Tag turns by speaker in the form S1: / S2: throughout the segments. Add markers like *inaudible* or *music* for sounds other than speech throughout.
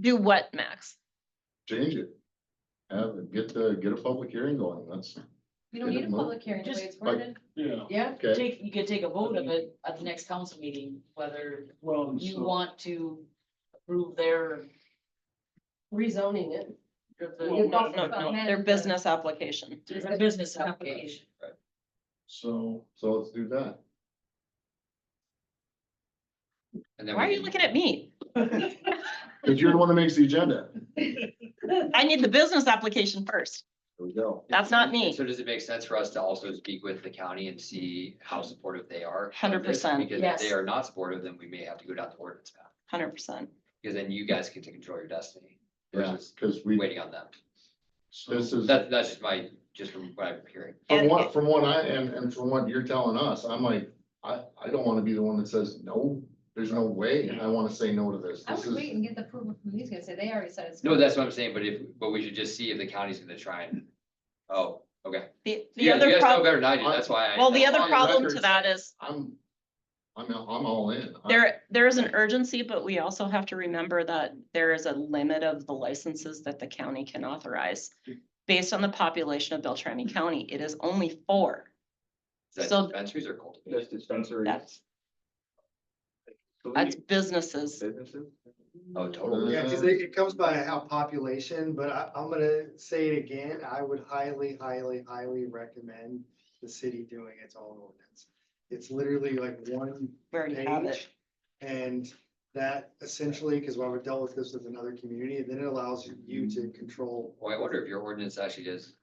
S1: Do what, Max?
S2: change it. Have, it- get the, get a public hearing going, that's,
S3: We don't need a
S2: Didn't move.
S3: public hearing, the way
S4: Just
S3: it's worded.
S5: Yeah,
S4: Yeah,
S2: Okay.
S4: take, you could take a vote of it at the next council meeting, whether
S5: well, and
S4: you
S5: so,
S4: want to approve their.
S3: Rezoning it.
S4: of the-
S5: Well,
S1: No, no, no, their business application.
S4: It's a business application.
S5: so,
S2: so let's do that.
S6: And then
S1: Why are
S6: we
S1: you
S6: can-
S1: looking at me?
S2: Cause you're the one that makes the agenda.
S1: I need the business application first.
S2: There we go.
S1: That's not me.
S6: So does it make sense for us to also speak with the county and see how supportive they are? of
S1: 100%,
S6: this? Because if
S4: yes.
S6: they are not supportive, then we may have to go down the ordinance path,
S1: Hundred percent.
S6: because then you guys get to control your destiny
S2: Yeah,
S6: versus
S2: cause we,
S6: waiting on them.
S5: so,
S2: this is,
S6: That, that's just my, just from what I'm hearing.
S2: from what, from what I, and, and from what you're telling us, I'm like, I, I don't wanna be the one that says, no, there's no way, I wanna say no to this.
S3: I
S2: This
S3: would wait
S2: is,
S3: and get the approval from these guys, say they already said it's.
S6: No, that's what I'm saying, but if, but we should just see if the county's gonna try and, oh, okay.
S1: The, the
S6: You guys, you
S1: other
S6: guys know
S1: problem,
S6: better than I do, that's why. I-
S1: well, the
S6: that's
S1: other
S6: why I-
S1: problem to
S2: records.
S1: that is
S2: I'm, I'm, all- I'm all in. I-
S1: there, there is an urgency, but we also have to remember that there is a limit of the licenses that the county can authorize. Based on the population of Beltrami County, it is only four.
S6: Is that
S1: so-
S6: dispensaries or cultivation?
S7: That's dispensary.
S1: That's,
S7: So
S1: that's
S7: you-
S1: businesses.
S7: businesses?
S6: Oh, totally.
S8: Yeah, cause it, it comes by how population, but I, I'm gonna say it again, I would highly, highly, highly recommend the city doing its own ordinance. It's literally like one
S1: We already have it.
S8: page. And that essentially, cause while we've dealt with this with another community, then it allows you to control.
S6: Well, Oh, I wonder if your ordinance actually does.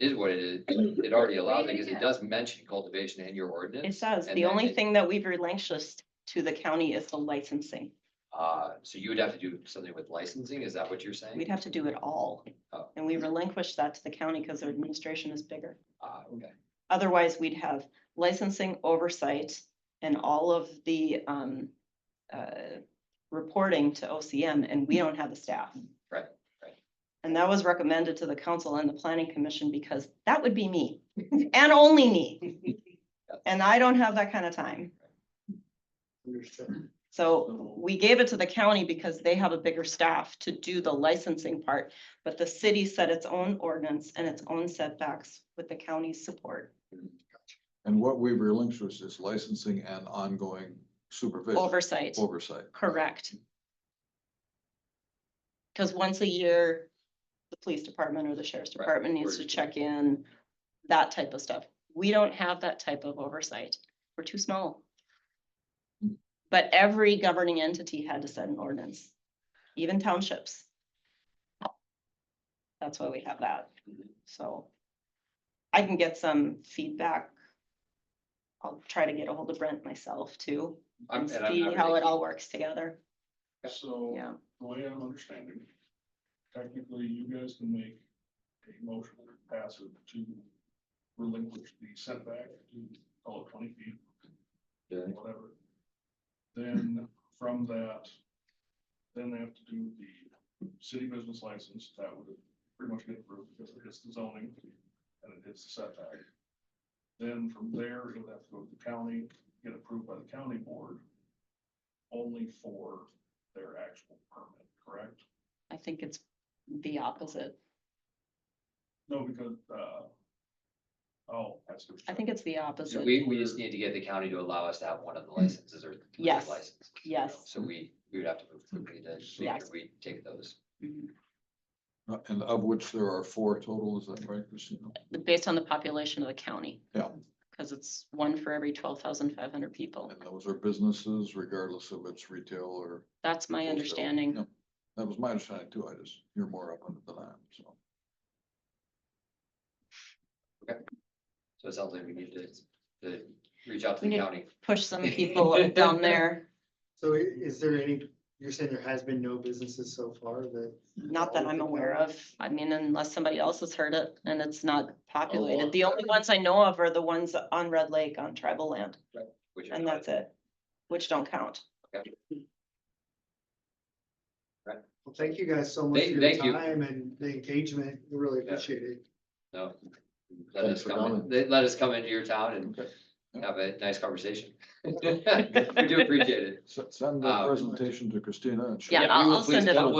S6: Is what it is, it already allows, it, because it does mention cultivation in your
S1: It
S6: ordinance,
S1: says,
S6: and
S1: the
S6: then
S1: only
S6: it-
S1: thing that we've relinquished to the county is the licensing.
S6: uh, so you would have to do something with licensing, is that what you're saying?
S1: We'd have to do it all.
S6: Oh.
S1: And we relinquish that to the county because their administration is bigger.
S6: Ah, okay,
S1: Otherwise, we'd have licensing oversight and all of the um. uh, Reporting to OCM and we don't have the staff.
S6: Right, right.
S1: And that was recommended to the council and the planning commission because that would be me and only
S6: *laughs*
S1: me. And I don't have that kind of time.
S8: Understood.
S1: So we gave it to the county because they have a bigger staff to do the licensing part. But the city set its own ordinance and its own setbacks with the county's support
S9: And what we've relinquished is licensing and ongoing supervision,
S1: oversight.
S9: oversight.
S1: Correct. Cause once a year, the police department or the sheriff's
S6: Right,
S1: department needs
S6: we're
S1: to
S6: just-
S1: check in, that type of stuff. We don't have that type of oversight. We're too small. But every governing entity had to set an ordinance, even townships. That's why we have that, so. I can get some feedback. I'll try to get a hold of Brent myself too
S6: I'm,
S1: and
S6: and I'm-
S1: see
S6: I'm.
S1: how it
S6: really-
S1: all works together.
S5: so,
S1: Yeah,
S5: the way I'm understanding. Technically, you guys can make a motion that passes to relinquish the setback to call it twenty feet.
S2: Okay.
S5: Whatever. Then from that, then they have to do the city business license, that would pretty much get approved because it hits the zoning and it hits the setback. Then from there, you'll have to go to the county, get approved by the county board. Only for their actual permit, correct?
S1: I think it's the opposite.
S5: No, because, uh, oh, that's. what
S1: I think it's the
S6: So
S1: opposite.
S6: we, we just need to get the county to allow us to have one of the licenses or. two of the
S1: Mm-hmm. Yes,
S6: licenses, you know,
S1: yes.
S6: So we, we would have to move quickly to make sure
S1: Yes.
S6: we take those.
S1: Mhm.
S9: Uh, And of which there are four total, is that right, Christina?
S1: Based on the population of the county.
S9: Yeah.
S1: Cause it's one for every twelve thousand five hundred people.
S9: And those are businesses regardless of it's retail or.
S1: That's my
S9: wholesale.
S1: understanding.
S9: Yeah. That was my understanding too. I just, you're more up on it than I am, so.
S6: So it sounds like we need to, to reach out to
S1: We
S6: the
S1: need-
S6: county.
S1: Push some people down there.
S8: So i- is there any, you're saying there has been no businesses so far that?
S1: Not that I'm aware
S9: *laughs*
S1: of. I mean, unless somebody else has heard it and it's not populated.
S9: Oh,
S2: well-
S1: The only ones I know of are the ones on Red Lake on tribal land
S6: which are
S1: and
S6: not-
S1: that's it. Which don't count.
S8: Well, thank you guys so much for
S6: Thank-
S8: your
S6: thank you.
S8: time and the engagement, We really appreciate it.
S6: No. Let
S2: Thanks
S6: us
S2: for
S6: come, in-
S2: coming.
S6: they- let us come into your town
S9: Okay.
S6: and have a
S2: *laughs*
S6: nice conversation. We do appreciate it.
S9: S- Send the
S6: Um,
S9: presentation to Christina and she'll
S1: Yeah,
S6: we
S1: I'll-
S6: will
S1: I'll
S6: please
S1: send it
S6: come.
S1: out.